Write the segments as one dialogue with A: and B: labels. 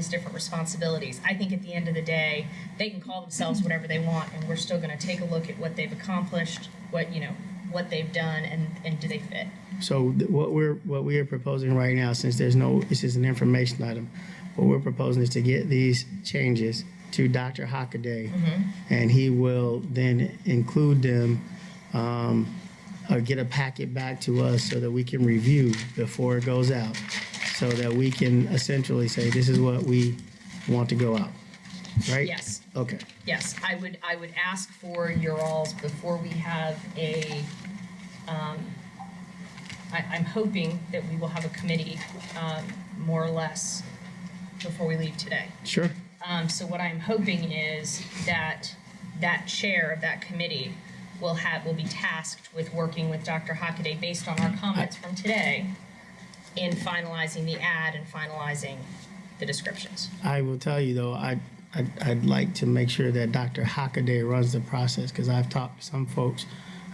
A: different responsibilities. I think at the end of the day, they can call themselves whatever they want, and we're still going to take a look at what they've accomplished, what you know, what they've done, and and do they fit?
B: So th- what we're, what we are proposing right now, since there's no, this is an information item, what we're proposing is to get these changes to Dr. Hockaday. And he will then include them, um, or get a packet back to us so that we can review before it goes out. So that we can essentially say, this is what we want to go out, right?
A: Yes.
B: Okay,
A: Yes, I would, I would ask for your alls before we have a, um, I, I'm hoping that we will have a committee, um, more or less before we leave today.
B: sure,
A: Um, so what I'm hoping is that that chair of that committee will have, will be tasked with working with Dr. Hockaday based on our comments from today in finalizing the ad and finalizing the descriptions.
B: I will tell you though, I, I'd, I'd like to make sure that Dr. Hockaday runs the process because I've talked to some folks.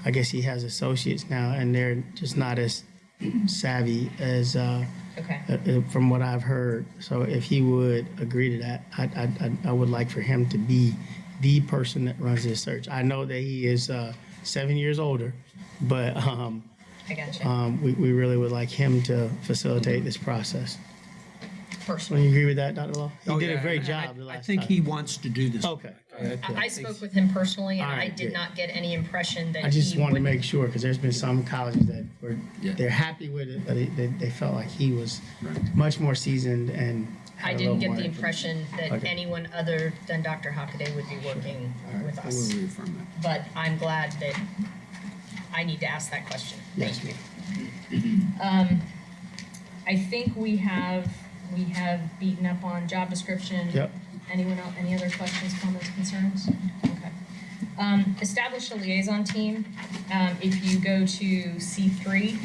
B: I guess he has associates now, and they're just not as savvy as uh,
A: Okay.
B: uh, uh, from what I've heard. So if he would agree to that, I, I, I- I would like for him to be the person that runs this search. I know that he is uh, seven years older, but um,
A: I got you.
B: um, we, we really would like him to facilitate this process. Don't
A: Personally.
B: you agree with that, Dr. Law? He
C: Oh,
B: did
C: yeah,
B: a great
C: and I-
B: job the last
C: I think
B: time.
C: he wants to do this.
B: Okay.
A: I I spoke with him personally, and
B: All
A: I
B: right,
A: did
B: good.
A: not get any impression that
B: I just
A: he
B: wanted to
A: wouldn't-
B: make sure because there's been some colleges that were
C: Yeah.
B: they're happy with it, but they, they, they felt like he was
C: Right.
B: much more seasoned and. had
A: I
B: a
A: didn't
B: little
A: get
B: more
A: the impression that
B: Okay.
A: anyone other than Dr. Hockaday would be working with
C: I will
A: us.
C: reaffirm that.
A: But I'm glad that I need to ask that question.
B: Yes,
A: Thank you. Um, I think we have, we have beaten up on job description.
B: Yep.
A: Anyone else, any other questions, comments, concerns? Okay. Um, establish a liaison team. Um, if you go to C three,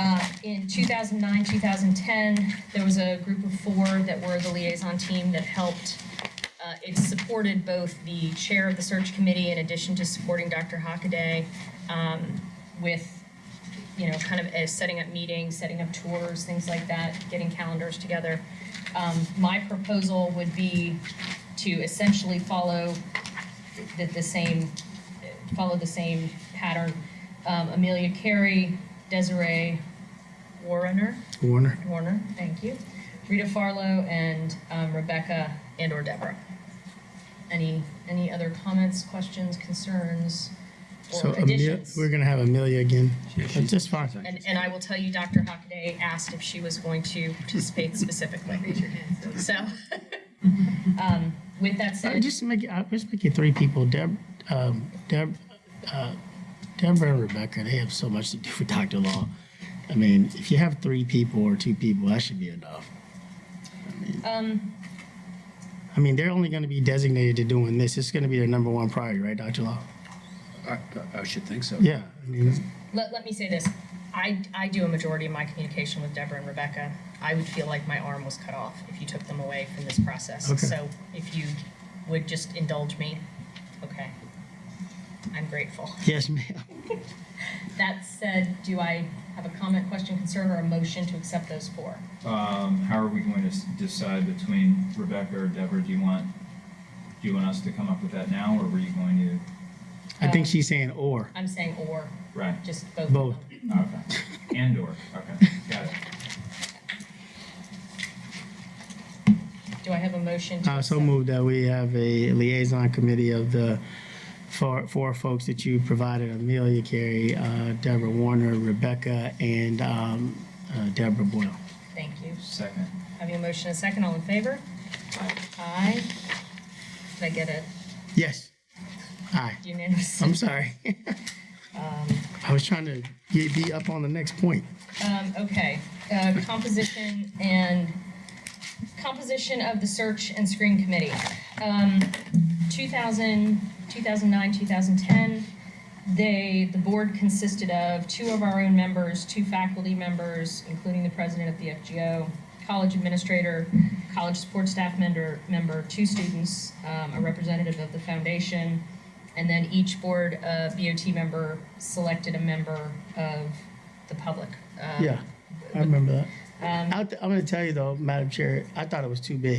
A: uh, in two thousand nine, two thousand ten, there was a group of four that were the liaison team that helped. Uh, it supported both the chair of the search committee in addition to supporting Dr. Hockaday, um, with you know, kind of as setting up meetings, setting up tours, things like that, getting calendars together. Um, my proposal would be to essentially follow the, the same, follow the same pattern. Um, Amelia Carey, Desiree Warner,
B: Warner.
A: Warner, thank you, Rita Farlow, and um, Rebecca and or Deborah. Any, any other comments, questions, concerns,
B: So
A: or
B: Amelia,
A: additions?
B: we're gonna have Amelia again.
C: Yeah, she's-
B: Just fine.
A: And, and I will tell you, Dr. Hockaday asked if she was going to participate specifically. So, um, with that
B: Uh,
A: said,
B: Just make it, uh, just make it three people. Deb, um, Deb, uh, Deborah and Rebecca. They have so much to do with Dr. Law. I mean, if you have three people or two people, that should be enough.
A: um,
B: I mean, they're only gonna be designated to doing this. It's gonna be their number one priority, right, Dr. Law?
C: I, I should think so.
B: Yeah. I mean,
A: let, let me say this. I, I do a majority of my communication with Deborah and Rebecca. I would feel like my arm was cut off if you took them away from this process.
B: Okay.
A: So if you would just indulge me, okay. I'm grateful.
B: Yes, ma'am.
A: That said, do I have a comment, question, concern, or a motion to accept those four?
D: Um, how are we going to s- decide between Rebecca or Deborah? Do you want, do you want us to come up with that now, or were you going
B: I think she's saying or.
A: I'm saying or,
D: to, right,
A: just both. of
B: Both.
A: them.
D: okay, and or, okay, got it.
A: Do I have a motion to
B: I Uh, so
A: accept?
B: moved that we have a liaison committee of the four, four folks that you provided, Amelia Carey, uh, Deborah Warner, Rebecca, and um, uh, Deborah Boyle.
A: Thank you.
D: Second.
A: Having a motion and a second, all in favor? Aye. Did I get it
B: Yes. Aye.
A: unanimous?
B: I'm sorry. I was trying to get- be up on the next point.
A: Um, okay, uh, composition and, composition of the search and screen committee. Um, 2000, 2009, 2010, they, the board consisted of two of our own members, two faculty members, including the president of the FGO, college administrator, college support staff member, member, two students, um, a representative of the foundation, and then each board, uh, BOT member selected a member of the public. um,
B: Yeah, I remember that. I th- I'm going to tell you though, Madam Chair, I thought it was too big.